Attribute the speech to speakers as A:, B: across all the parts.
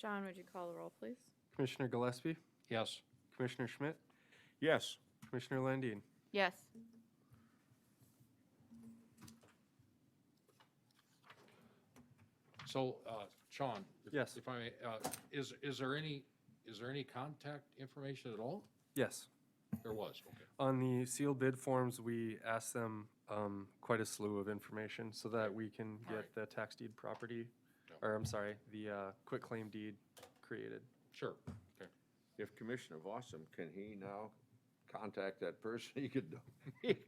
A: Sean, would you call the roll, please?
B: Commissioner Gillespie,
C: Yes.
B: Commissioner Schmidt,
D: Yes.
B: Commissioner Landine.
A: Yes.
C: So, uh, Sean? if-
B: Yes.
C: If I may, uh, is, is there any, is there any contact information at all?
B: Yes.
C: There was, okay.
B: On the sealed bid forms, we asked them um, quite a slew of information so that we can
C: All
B: get
C: right.
B: the tax deed property,
C: Yeah.
B: or I'm sorry, the quick claim deed created.
C: Sure, okay.
D: If Commissioner Fossum, can he now contact that person? He could, he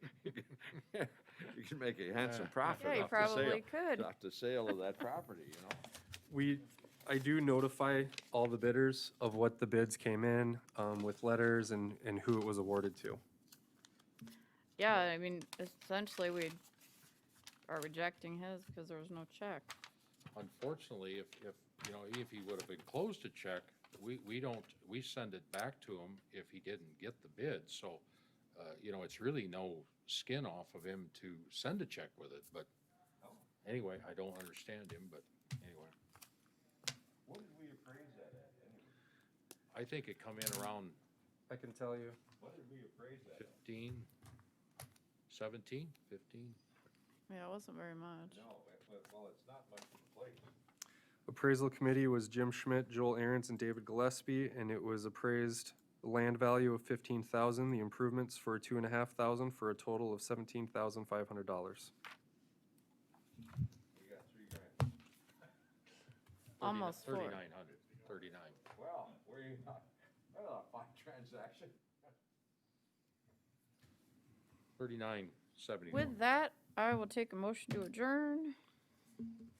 D: could make a handsome profit
A: Yeah, you
D: off the sale.
A: probably could.
D: Off the sale of that property, you know?
B: We, I do notify all the bidders of what the bids came in um, with letters and, and who it was awarded to.
A: Yeah, I mean, essentially, we are rejecting his because there was no check.
C: Unfortunately, if, if, you know, if he would have enclosed a check, we, we don't, we send it back to him if he didn't get the bid. So, uh, you know, it's really no skin off of him to send a check with it, but anyway, I don't understand him, but anyway.
D: What did we appraise that at anyway?
C: I think it come in around
B: I can tell you.
D: What did we appraise that at?
C: 15, 17, 15?
A: Yeah, it wasn't very much.
D: No, well, it's not much of a place.
B: Appraisal committee was Jim Schmidt, Joel Aaron's, and David Gillespie, and it was appraised the land value of fifteen thousand, the improvements for two and a half thousand, for a total of seventeen thousand five hundred dollars.
D: We got three grand.
A: Almost four.
C: 3,900, 39.
D: Well, we, well, a fine transaction.
C: 3971.
A: With that, I will take a motion to adjourn.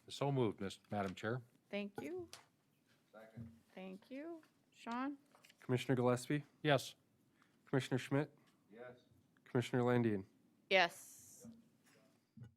C: So moved, Miss- Madam Chair.
A: Thank you.
D: Second.
A: Thank you. Sean?
B: Commissioner Gillespie,
C: Yes.
B: Commissioner Schmidt,
D: Yes.
B: Commissioner Landine.
A: Yes.